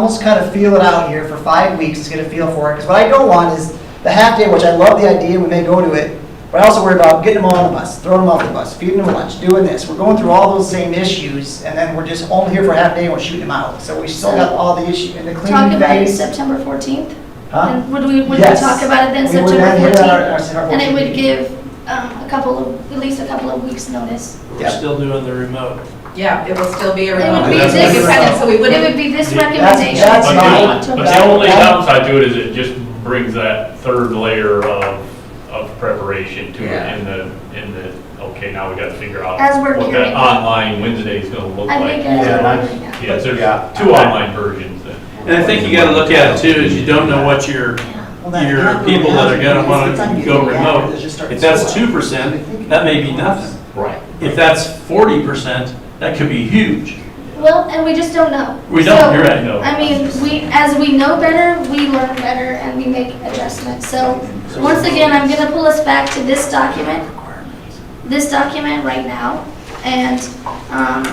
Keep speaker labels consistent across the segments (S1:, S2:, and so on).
S1: almost kind of feel it out here for five weeks to get a feel for it. Because what I don't want is the half day, which I love the idea, we may go to it, but I also worry about getting them on the bus, throwing them off the bus, feeding them lunch, doing this. We're going through all those same issues, and then we're just only here for a half day and we're shooting them out. So we still got all the issue and the
S2: Talk
S1: cleaning
S2: about it
S1: days.
S2: September 14th?
S1: Huh?
S2: And would we, would we
S1: Yes.
S2: talk about it then
S1: We would
S2: September
S1: then hit our- our
S2: 14th?
S1: September
S2: And it
S1: 14th.
S2: would give um, a couple of, at least a couple of weeks' notice.
S3: We're
S1: Yeah.
S3: still doing the remote.
S4: Yeah, it will still be a
S2: It would
S4: remote.
S2: be
S3: That's
S2: this,
S4: independent, So we
S2: it
S4: wouldn't,
S2: would be this
S5: That's-
S2: recommendation.
S1: that's
S2: for
S5: But the-
S1: fine.
S2: October.
S5: but the only
S1: That-
S5: downside to it is it just brings that third layer of, of preparation to
S1: Yeah.
S5: it in the, in the, okay, now we gotta figure out
S2: As we're
S5: what
S2: gearing
S5: that
S2: up.
S5: online Wednesday is gonna look
S2: I think as
S5: like.
S6: Yeah,
S2: we're
S6: that's-
S2: ordering it.
S5: Yeah, so
S6: Yeah.
S5: there's two online versions then.
S3: And I think you gotta look at it too, is you don't know what your,
S1: uh,
S3: your people that are gonna wanna go remote. If that's two percent, that may be nothing.
S5: Right.
S3: If that's forty percent, that could be huge.
S2: Well, and we just don't know.
S3: We don't,
S2: So,
S3: you're right.
S5: No.
S2: I mean, we, as we know better, we learn better and we make adjustments. So, once again, I'm gonna pull us back to this document, this document right now. And, um,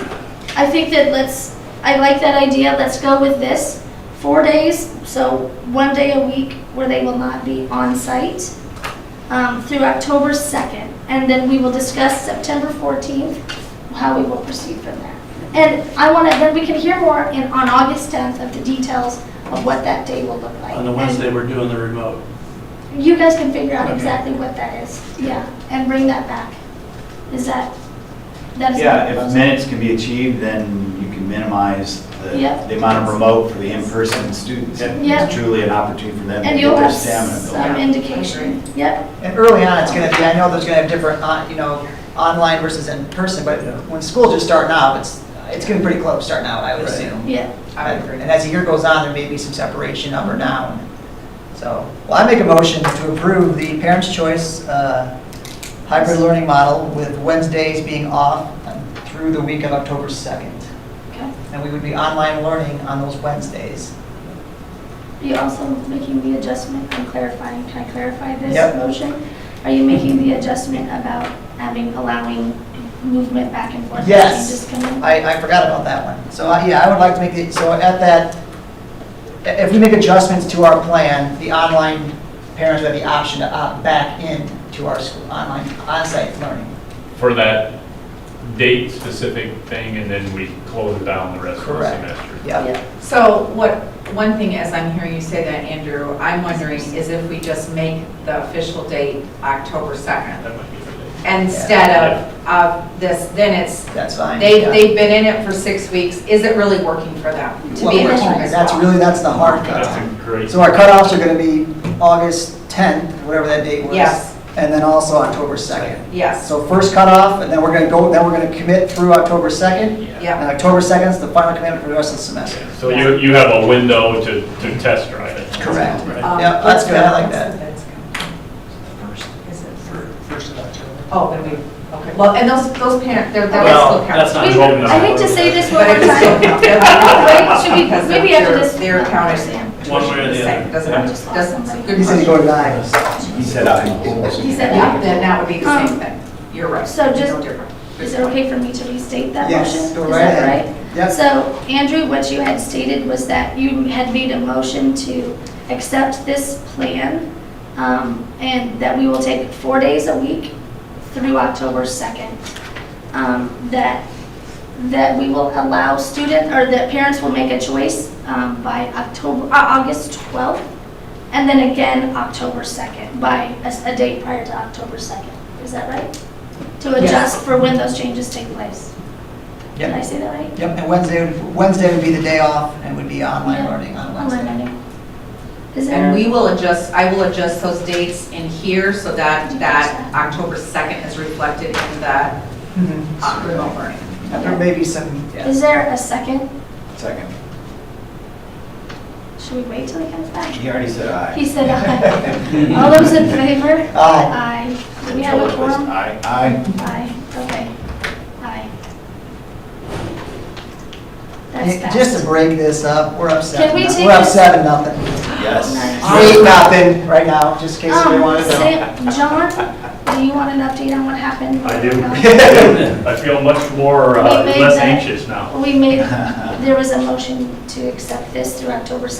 S2: I think that let's, I like that idea, let's go with this. Four days, so one day a week where they will not be on site, um, through October second. And then we will discuss September fourteenth, how we will proceed from there. And I want to, then we can hear more in, on August 10th of the details of what that day will look like.
S3: On the Wednesday, we're doing the remote.
S2: And You guys can figure out
S3: Okay.
S2: exactly what that is, yeah, and bring that back. Is that, that is.
S6: Yeah, if minutes can be achieved, then you can minimize the
S2: Yeah.
S6: the amount of remote for the in-person students. And
S2: Yeah.
S6: It's truly an opportunity for them to
S2: And
S6: get
S2: you'll
S6: their
S2: have
S6: stamina built.
S2: some indication, yep,
S1: And early on, it's gonna be, I know there's gonna have different, uh, you know, online versus in person, but when school's just starting out, it's, it's getting pretty close starting out, I would
S3: Right.
S1: assume.
S2: yeah.
S4: I would agree.
S1: And as the year goes on, there may be some separation up or down. So, well, I make a motion to approve the Parents' Choice uh, Hybrid Learning Model with Wednesdays being off through the week of October 2nd.
S2: Okay.
S1: And we would be online learning on those Wednesdays.
S2: Are you also making the adjustment, I'm clarifying, can I clarify this
S1: Yep.
S2: motion? Are you making the adjustment about having, allowing movement back and forth?
S1: Yes.
S2: Changes coming?
S1: I, I forgot about that one. So, I- yeah, I would like to make it, so at that, i- if we make adjustments to our plan, the online parents would have the option to opt back in to our school, online, onsite learning.
S5: For that date-specific thing, and then we close it down the rest of the
S1: Correct.
S5: semester.
S1: Yep.
S2: Yeah.
S4: so what, one thing as I'm hearing you say that, Andrew, I'm wondering is if we just make the official date October 2nd
S5: That might be the day.
S4: instead of, of this, then it's,
S1: That's fine.
S4: they,
S1: yeah.
S4: they've been in it for six weeks, is it really working for them to
S1: Well,
S4: be in
S1: we're-
S4: the room as
S1: That's
S4: well?
S1: really, that's the hard
S5: That's
S1: cut.
S5: a great.
S1: So our cutoffs are gonna be August 10th, whatever that date was.
S4: Yes.
S1: And then also October 2nd.
S4: Yes,
S1: So first cutoff, and then we're gonna go, then we're gonna commit through October 2nd.
S4: yeah.
S1: And October 2nd is the final commitment for the rest of the semester.
S5: So you, you have a window to, to test drive it.
S1: Correct.
S4: Um,
S1: Yeah, that's good, I like
S4: what's
S1: that.
S4: the- that's good. Is it- Oh, then we, okay, well, and those, those parents, they're, they're
S3: Well,
S4: still
S3: that's
S4: parents.
S3: not
S2: Wait,
S3: holding
S2: I hate to say this one more
S4: But it's still
S2: time.
S4: count. They're
S2: No, wait,
S4: not-
S2: should we,
S4: because
S2: maybe after
S4: they're-
S2: this.
S4: They're counted
S3: One way or the
S4: the same,
S3: other.
S4: doesn't, doesn't, good
S1: He said you go
S4: question.
S1: to nine.
S6: He said I.
S2: He said
S4: Yeah, then
S2: that.
S4: that would be the
S2: Um,
S4: same thing, you're right.
S2: so just-
S4: No different.
S2: Is it okay for me to restate that motion?
S1: Yes,
S2: Is
S1: go right
S2: that
S1: ahead.
S2: right?
S1: Yep.
S2: So Andrew, what you had stated was that you had made a motion to accept this plan um, and that we will take four days a week through October 2nd. Um, That, that we will allow student, or that parents will make a choice um, by October, uh, August 12th and then again October 2nd by a s- a date prior to October 2nd. Is that right? To adjust for when those changes take place. Did I
S1: Yep,
S2: say that right?
S1: Yep. and Wednesday, would- Wednesday would be the day off and would be online
S2: Yeah.
S1: learning on
S2: Online
S1: Wednesday.
S2: learning. Is
S4: And
S2: there,
S4: we will adjust, I will adjust those dates in here so that, that October 2nd is reflected in the
S1: Mhm.
S4: uh, remote learning.
S1: And There may be some, yeah.
S2: is there a second?
S6: Second.
S2: Should we wait till he comes back?
S6: He already said I.
S2: He said aye. All those in favor?
S1: Aye.
S2: Aye. Do we have a quorum?
S6: I. I.
S2: Aye, okay. Aye. That's
S1: Hey, Just
S2: fast.
S1: to break this up, we're up seven.
S2: we take
S1: We're up
S2: this-
S1: seven, nothing.
S6: Yes.
S2: Nice.
S1: Ah. Eight, nothing right now, just in case
S2: Um,
S1: you want to know.
S2: Sam- John, do you want an update on what happened? Um,
S5: I do.
S2: No.
S5: I feel much more, uh,
S2: We made
S5: less
S2: that-
S5: anxious now.
S2: We made, there was a motion to accept this through October 2nd.